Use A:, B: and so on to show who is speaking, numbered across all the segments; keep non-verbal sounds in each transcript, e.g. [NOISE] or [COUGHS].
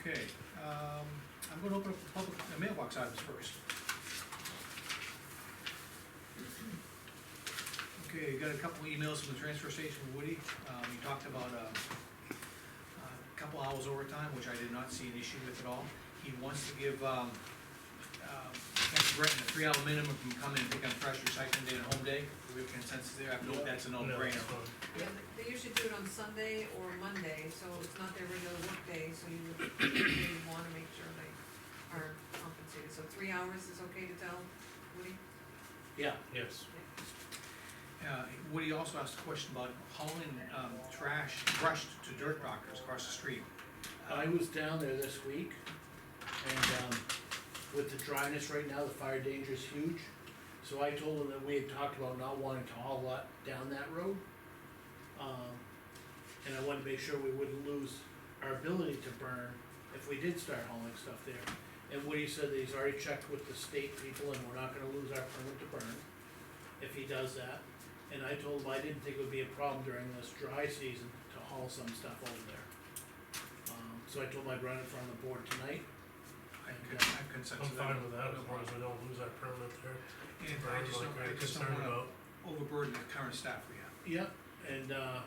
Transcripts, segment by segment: A: Okay, um, I'm gonna open up the public, uh, mailbox items first. Okay, got a couple emails from the transfer station, Woody, um, he talked about, um, a couple hours overtime, which I did not see an issue with at all. He wants to give, um, uh, Brenton a three hour minimum from coming and picking up trash recycling day and home day, do we have consensus there, I believe that's a no brainer.
B: Yeah, they usually do it on Sunday or Monday, so it's not their regular work day, so you [COUGHS] would, you wanna make sure they are compensated. So three hours is okay to tell Woody?
C: Yeah,
D: Yes.
A: Uh, Woody also asked a question about hauling, um, trash, brush to dirt rockers across the street.
C: I was down there this week, and, um, with the dryness right now, the fire danger is huge. So I told them that we had talked about not wanting to haul a lot down that road. Um, and I wanted to make sure we wouldn't lose our ability to burn if we did start hauling stuff there. And Woody said that he's already checked with the state people and we're not gonna lose our permit to burn if he does that. And I told him I didn't think it would be a problem during this dry season to haul some stuff over there. Um, so I told him I'd run it from the board tonight.
A: I can, I have consensus.
D: I'm fine with that,
A: No
D: as long
A: problem.
D: as we don't lose our permit there.
A: And I just don't, I
D: am
A: just don't
D: concerned
A: wanna
D: about.
A: overburden the current staff we have.
C: Yep, and, uh,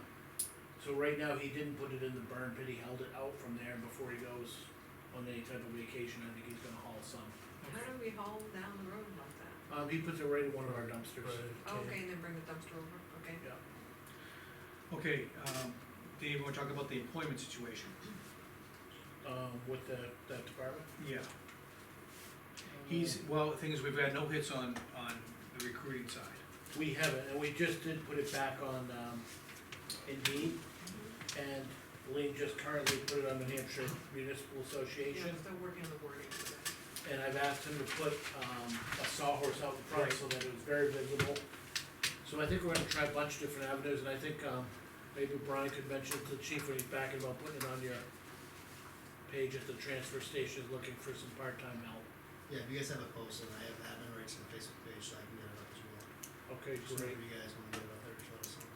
C: so right now, he didn't put it in the burn pit, he held it out from there before he goes on any type of vacation, I think he's gonna haul some.
B: Why
A: Okay.
B: don't we haul down the road like that?
C: Um, he puts it right in one of our dumpsters.
D: right,
B: Okay, and then bring the dumpster over, okay?
C: Yeah.
A: Okay, um, Dave, wanna talk about the employment situation?
C: Um, with the, that department.
A: Yeah. He's, well, the thing is, we've had no hits on, on the recruiting side.
C: We haven't, and we just did put it back on, um, Indeed, and Lean just currently put it on the New Hampshire Municipal
B: Yeah,
C: Association.
B: I'm still working on the wording for that.
C: and I've asked him to put, um, a sawhorse out in front so that it was very visible. So I think we're gonna try a bunch of different avenues, and I think, um, maybe Brian could mention to the chief when he's back about putting it on your page at the transfer station, looking for some part-time help.
E: Yeah, if you guys have a post, and I have admin rights on the Facebook page, so I can get it up as well.
C: Okay,
E: Just
C: great,
E: whenever you guys wanna get it up there, just let us know.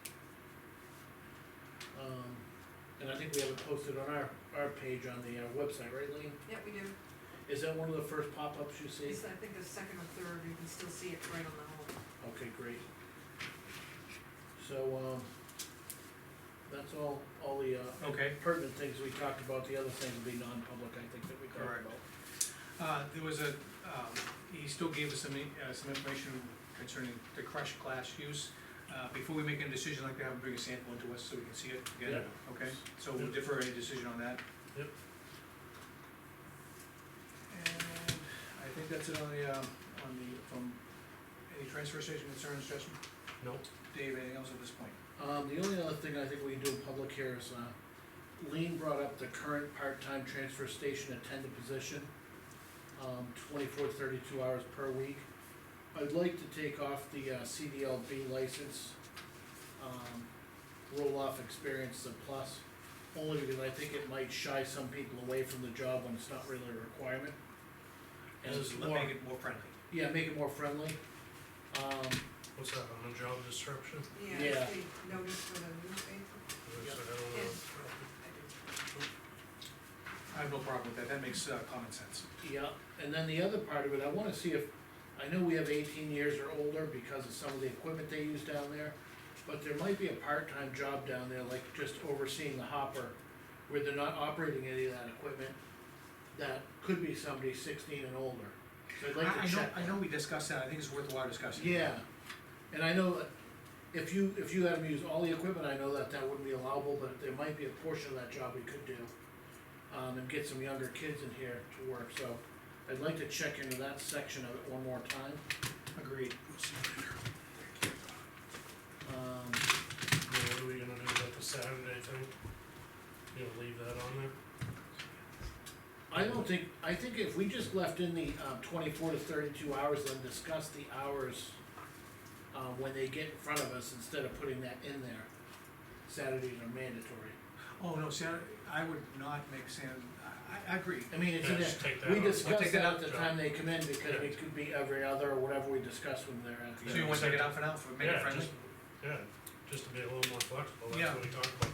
C: um, and I think we have it posted on our, our page on the, uh, website, right, Lean?
B: Yeah, we do.
C: Is that one of the first pop-ups you see?
B: It's, I think the second or third, you can still see it right on the hole.
C: Okay, great. So, um, that's all, all the, uh,
A: Okay.
C: pertinent things we talked about, the other things will be non-public, I think, that we talked
A: Correct.
C: about.
A: Uh, there was a, um, he still gave us some, uh, some information concerning the crush glass use. Uh, before we make any decision, I'd like to have him bring a sample into us so we can see it together, okay? So we'll defer any decision on that.
D: Yep.
A: And I think that's it on the, um, on the, from, any transfer station concerns, Justin?
D: Nope,
A: Dave, anything else at this point?
C: Um, the only other thing I think we can do in public here is, uh, Lean brought up the current part-time transfer station attendant position, um, 24 32 hours per week. I'd like to take off the, uh, CDLB license, um, roll-off experience the plus, only because I think it might shy some people away from the job when it's not really a requirement. And it's
A: Let's
C: more-
A: Make it more friendly.
C: Yeah, make it more friendly. Um,
D: what's that, on the job description?
B: Yeah,
C: Yeah.
B: it's the notice for the newspaper,
D: I
C: Yep.
D: don't know.
B: Yes. I do.
A: I have no problem with that, that makes, uh, common sense.
C: yeah, and then the other part of it, I wanna see if, I know we have eighteen years or older because of some of the equipment they use down there. But there might be a part-time job down there, like just overseeing the hopper, where they're not operating any of that equipment. That could be somebody sixteen and older, so I'd
A: I,
C: like
A: I
C: to
A: know,
C: check.
A: I know we discussed that, I think it's worthwhile discussing.
C: Yeah, and I know that if you, if you had them use all the equipment, I know that that wouldn't be allowable, but there might be a portion of that job we could do. Um, and get some younger kids in here to work, so I'd like to check into that section of it one more time.
A: Agreed.
C: Um,
D: Well, What are we gonna do about the Saturday thing? You gonna leave that on there?
C: I don't think, I think if we just left in the, um, twenty-four to thirty-two hours, then discuss the hours. Uh, when they get in front of us, instead of putting that in there, Saturdays are mandatory.
A: Oh, no, see, I, I would not make Sam, I, I agree.
C: I mean, it's in
D: Yeah,
C: there,
D: just take that
C: we
D: out.
A: We'll
C: discuss
A: take
C: it
A: that
C: at
A: out,
C: the
D: John.
C: time they come in, because
D: Yeah.
C: it could be every other or whatever we discuss when they're at
A: So
C: the.
A: you wanna take it out for now, for make it
D: Yeah,
A: friendly?
D: just- Yeah, just to be a little more flexible,
A: Yeah.
D: that's what we talked about.